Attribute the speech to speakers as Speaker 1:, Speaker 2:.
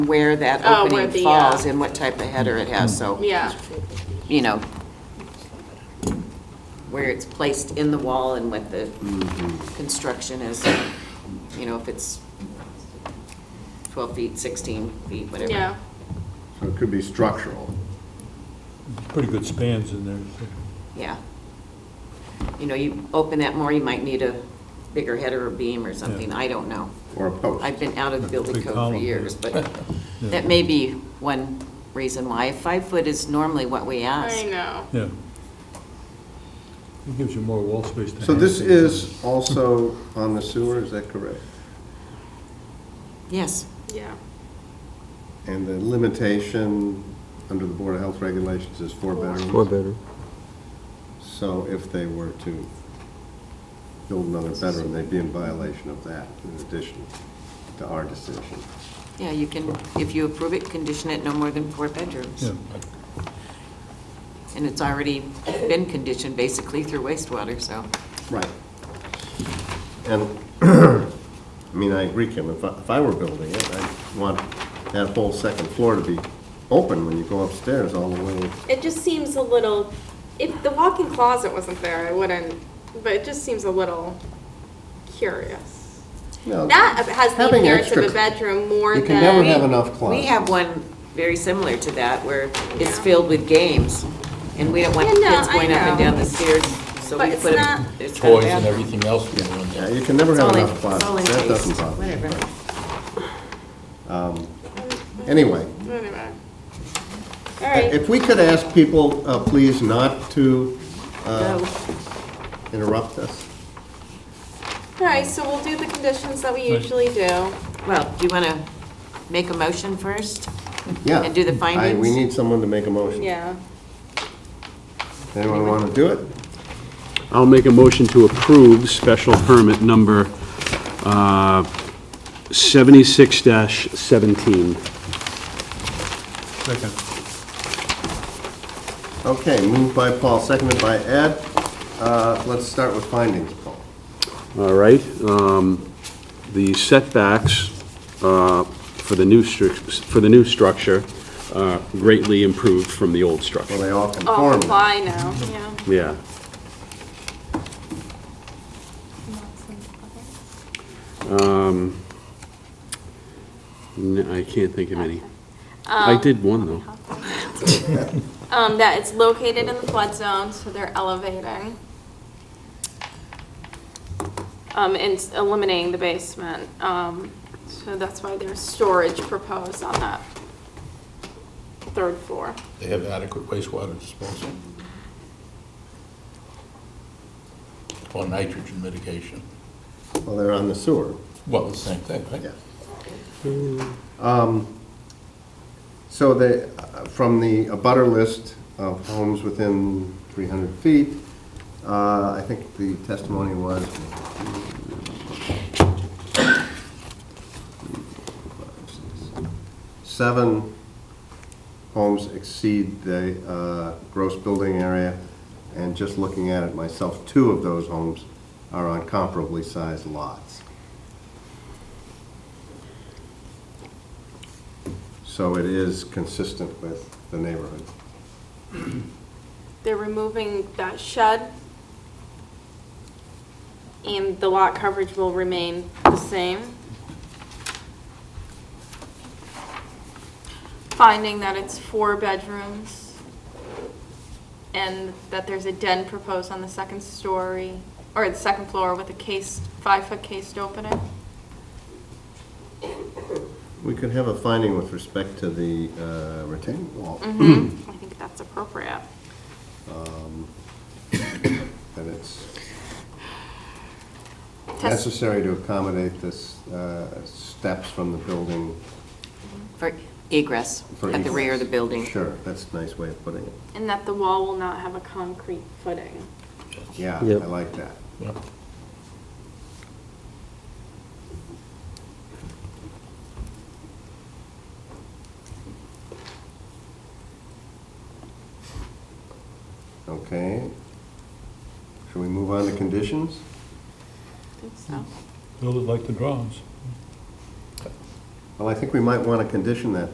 Speaker 1: where that
Speaker 2: Oh, where
Speaker 1: opening
Speaker 2: the, uh, Mm-hmm.
Speaker 1: falls and what type of header it has, so,
Speaker 2: Yeah,
Speaker 1: you know, where it's placed in the wall and what the
Speaker 3: Mm-hmm.
Speaker 1: construction is, you know, if it's 12 feet, 16 feet, whatever.
Speaker 2: yeah.
Speaker 4: So it could be structural.
Speaker 3: pretty good spans in there. so.
Speaker 1: Yeah. You know, you open that more, you might need a bigger header or beam or something, I don't know.
Speaker 4: Or a post.
Speaker 1: I've been out of the building
Speaker 3: Big
Speaker 1: code for
Speaker 3: column.
Speaker 1: years, but that may be one reason why. Five foot is normally what we
Speaker 2: I
Speaker 1: ask.
Speaker 2: know.
Speaker 3: Yeah. It gives you more wall space. to
Speaker 4: So
Speaker 3: hang
Speaker 4: this
Speaker 3: things on.
Speaker 4: is also on the sewer, is that correct?
Speaker 1: Yes,
Speaker 2: Yeah.
Speaker 4: And the limitation under the Board of Health regulations is four bedrooms?
Speaker 5: Four bedroom.
Speaker 4: So if they were to build another bedroom, they'd be in violation of that in addition to our decision.
Speaker 1: yeah, you can, if you approve it, condition it no more than four bedrooms.
Speaker 3: Yeah,
Speaker 1: And it's already been conditioned basically through wastewater, so.
Speaker 4: Right. And, I mean, I agree, Kim, if I, if I were building it, I'd want that whole second floor to be open when you go upstairs all the way.
Speaker 2: It just seems a little, if the walk-in closet wasn't there, I wouldn't, but it just seems a little curious.
Speaker 4: No,
Speaker 2: That has the
Speaker 4: having
Speaker 2: appearance of
Speaker 4: extra-
Speaker 2: a bedroom more
Speaker 4: You
Speaker 2: than.
Speaker 4: can never have enough
Speaker 1: We
Speaker 4: closets.
Speaker 1: have one very similar to that where it's filled with games and we don't want
Speaker 2: Yeah, no,
Speaker 1: kids going up and
Speaker 2: I know.
Speaker 1: down the stairs, so
Speaker 2: But
Speaker 1: we
Speaker 2: it's
Speaker 1: put
Speaker 2: not-
Speaker 1: them. it's got a
Speaker 6: toys and
Speaker 1: bathroom.
Speaker 6: everything else we go in
Speaker 4: Yeah,
Speaker 6: there.
Speaker 4: you can never
Speaker 1: It's
Speaker 4: have
Speaker 1: all in,
Speaker 4: enough
Speaker 1: it's all in
Speaker 4: closets. That doesn't
Speaker 1: phase,
Speaker 4: bother me. Um,
Speaker 1: whatever.
Speaker 4: Anyway,
Speaker 2: Anyway. All right,
Speaker 4: if we could ask people, uh, please not to uh,
Speaker 1: Go.
Speaker 4: interrupt us.
Speaker 2: all right, so we'll do the conditions that we usually do.
Speaker 1: Well, do you want to make a motion first?
Speaker 4: Yeah.
Speaker 1: And do the
Speaker 4: I-
Speaker 1: findings?
Speaker 4: We need someone to make a motion.
Speaker 2: Yeah.
Speaker 4: Anyone want to do it?
Speaker 7: I'll make a motion to approve special permit number uh, 76-17.
Speaker 3: second.
Speaker 4: Okay, moved by Paul, seconded by Ed. Uh, Let's start with findings, Paul.
Speaker 7: All right? um, The setbacks uh, for the new, stru- for the new structure are greatly improved from the old
Speaker 4: Well,
Speaker 7: structure.
Speaker 4: they
Speaker 1: Oh,
Speaker 4: all
Speaker 2: All
Speaker 4: conform.
Speaker 2: Oh, apply now, yeah.
Speaker 7: Yeah. Um, n- I can't think of any. I did one, though.
Speaker 2: Um, that it's located in the flood zone, so they're elevating. Um, and s- eliminating the basement, um, so that's why there's storage proposed on that third floor.
Speaker 6: They have adequate wastewater disposal. Or nitrogen mitigation.
Speaker 4: Well, they're on the sewer.
Speaker 6: Well, the same thing, right?
Speaker 4: Yeah. So the, uh, from the abutter list of homes within 300 feet, uh, I think the testimony was seven homes exceed the uh, gross building area, and just looking at it myself, two of those homes are on comparably sized lots. So it is consistent with the neighborhood.
Speaker 2: They're removing that shed. And the lot coverage will remain the same. Finding that it's four bedrooms. And that there's a den proposed on the second story, or the second floor with a case, five-foot cased opening.
Speaker 4: We could have a finding with respect to the uh, retaining wall,
Speaker 1: Mm.
Speaker 2: Mm-hmm. I think that's appropriate.
Speaker 4: that it's
Speaker 2: Test-
Speaker 4: necessary to accommodate this uh, steps from the building.
Speaker 1: For egress,
Speaker 4: for
Speaker 1: at the rear of the building.
Speaker 4: Sure, that's a nice way of putting it.
Speaker 2: And that the wall will not have a concrete footing.
Speaker 4: Yeah, I
Speaker 5: Yep.
Speaker 4: like that.
Speaker 6: Yeah.
Speaker 4: Okay. Shall we move on to conditions?
Speaker 2: I think so.
Speaker 3: Build it like the drawings.
Speaker 4: Well, I think we might want to condition that